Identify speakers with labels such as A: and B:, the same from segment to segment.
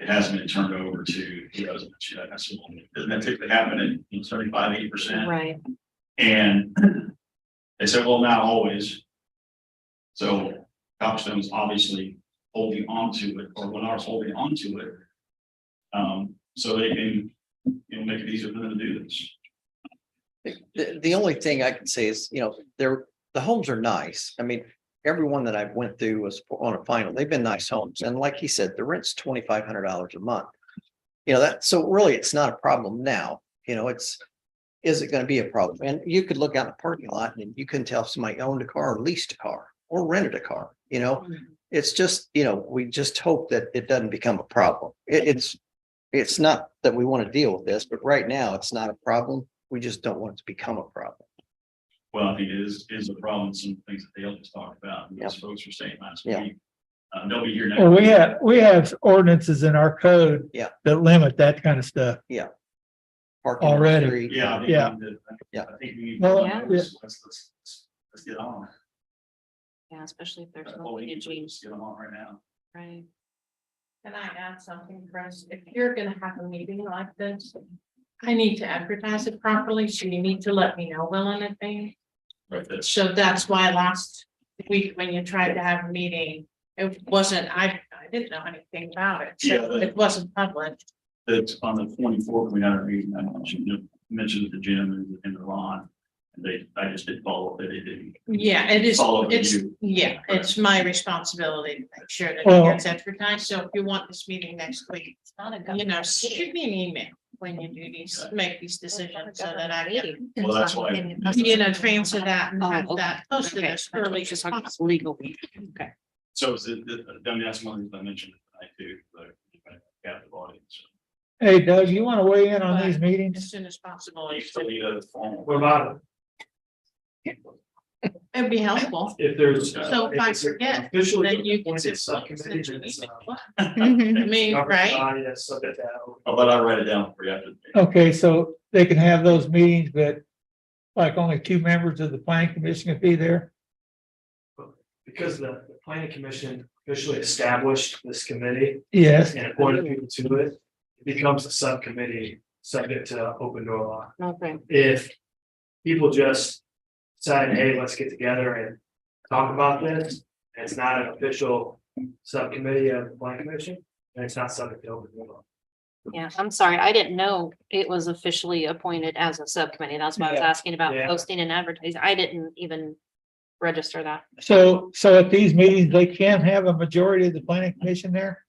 A: hasn't been turned over to the residents yet. That's what, doesn't that typically happen in seventy-five, eighty percent?
B: Right.
A: And they said, well, not always. So Copstone's obviously holding on to it, or Lennar's holding on to it. Um, so they can, you know, make it easier for them to do this.
C: The, the only thing I can say is, you know, they're, the homes are nice. I mean, everyone that I've went through was on a final. They've been nice homes. And like he said, the rent's twenty-five hundred dollars a month. You know, that, so really, it's not a problem now. You know, it's, is it gonna be a problem? And you could look out in the parking lot and you couldn't tell if somebody owned a car or leased a car or rented a car, you
A: Oh.
C: know? It's just, you know, we just hope that it doesn't become a problem. It, it's, it's not that we want to deal with this, but right now it's not a problem. We just don't want it to become a problem.
A: Well, I think it is, is a problem, some things that Dale just talked about, and those folks were saying last
C: Yeah.
A: week. Uh, they'll be here next.
D: Well, we have, we have ordinances in our code.
C: Yeah.
D: That limit that kind of stuff.
C: Parking on the
D: Already.
C: street,
A: Yeah. I think we
D: Yeah.
A: need to-
C: Yeah.
A: I think we need.
D: Well,
B: Yeah.
A: Let's, let's, let's- let's get on.
B: Yeah, especially if there's
A: Uh,
B: no
A: well, we
B: way to
A: need to
B: change,
A: just Get on right now.
B: right?
E: Can I add something, Chris? If you're gonna have a meeting like this, I need to advertise it properly, so you need to let me know well in advance.
A: Right, that's,
E: So that's why last week when you tried to have a meeting, it wasn't, I, I didn't know anything about it.
A: Yeah,
E: So
A: but-
E: it wasn't public.
A: that's on the twenty-fourth, we had our meeting, I mentioned, you mentioned the gym and- and the lawn. And they, I just didn't follow up, they didn't.
E: Yeah, it is,
A: Follow up
E: it's,
A: you.
E: yeah, it's my responsibility to make sure that
D: Well-
E: it gets advertised. So if you want this meeting next week,
B: It's not a
E: you know,
B: government
E: shoot me an email when you do these, make these decisions so that I can
A: Well, that's why-
E: you know, transfer that and
B: Oh,
E: have
B: okay.
E: that posted as early as possible.
B: Legal. Okay.
A: So is it, the- I mean, that's one of the things I mentioned, I do, like, captive audience.
D: Hey Doug, you want to weigh in on these
E: As
D: meetings?
E: soon as possible.
A: You still need a formal.
F: What about
E: It'd be helpful.
F: if there's?
E: So if I forget,
F: Officially
E: then you can
F: appointed
E: just-
F: subcommittee, then it's, uh,
E: I mean,
F: government
E: right?
F: body that's subject to that.
A: I'll let Oh, I write it down for you after. the meeting.
D: Okay, so they can have those meetings, but like only two members of the planning commission could be there.
F: Because the the planning commission officially established this committee
D: Yes,
F: and appointed people to it. It becomes a subcommittee subject to open door law.
B: Okay.
F: If people just decide, hey, let's get together and talk about this, and it's not an official subcommittee of the planning commission, and it's not subject to open door law.
B: Yeah, I'm sorry. I didn't know it was officially appointed as a subcommittee. That's why I was
D: Yeah,
B: asking about
F: yeah.
B: posting and advertising. I didn't even register that.
D: so, so at these meetings, they can have a majority of the planning commission there?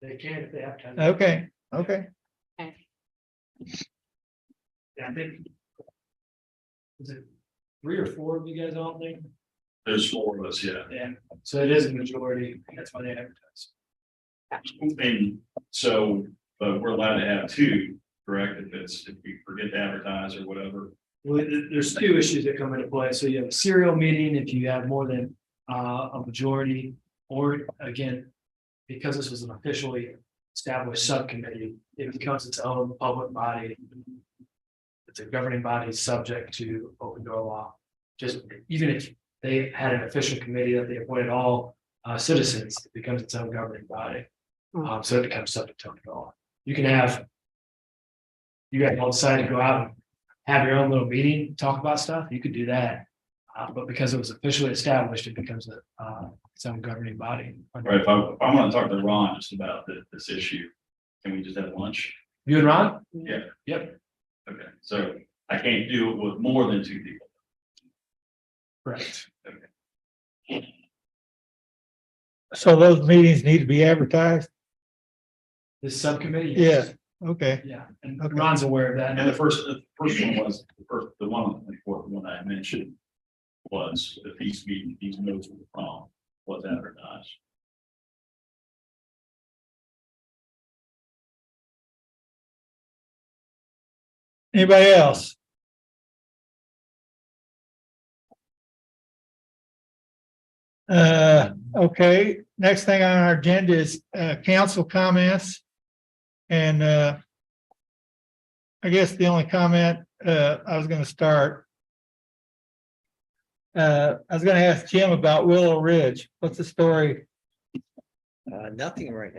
F: They can if they have time.
D: Okay, okay.
F: Yeah, I think. Is it three or four of you guys all think?
A: There's four of us, yeah.
F: Yeah. So it is a majority, that's why they advertise.
A: And so, but we're allowed to have two, correct? If it's, if we forget to advertise or whatever.
F: Well, there- there's two issues that come into play, so you have a serial meeting if you have more than uh a majority, or again. Because this was an officially established subcommittee, it becomes its own public body. It's a governing body subject to open door law, just even if they had an official committee that they appointed all uh citizens, it becomes its own governing body. Um, so it becomes subject to open door law, you can have. You guys all decide to go out and have your own little meeting, talk about stuff, you could do that. Uh, but because it was officially established, it becomes a, uh, its own governing body.
A: Right, if I, if I want to talk to Ron just about thi- this issue, can we just have lunch?
F: You and Ron?
A: Yeah.
F: Yep.
A: Okay, so I can't do it with more than two people.
F: Correct.
D: So those meetings need to be advertised?
F: This subcommittee?
D: Okay,
F: Yeah, and
D: Okay.
F: Ron's aware of that.
A: And the first, the first one was, the first, the one, on the 24th, the one I mentioned was the peace meeting, these notes were from, was advertised.
D: anybody else? Uh, okay, next thing on our agenda is, uh, council comments. And, uh, I guess the only comment, uh, I was gonna start. Uh, I was gonna ask Jim about Willow Ridge. What's the story
C: uh, nothing right now.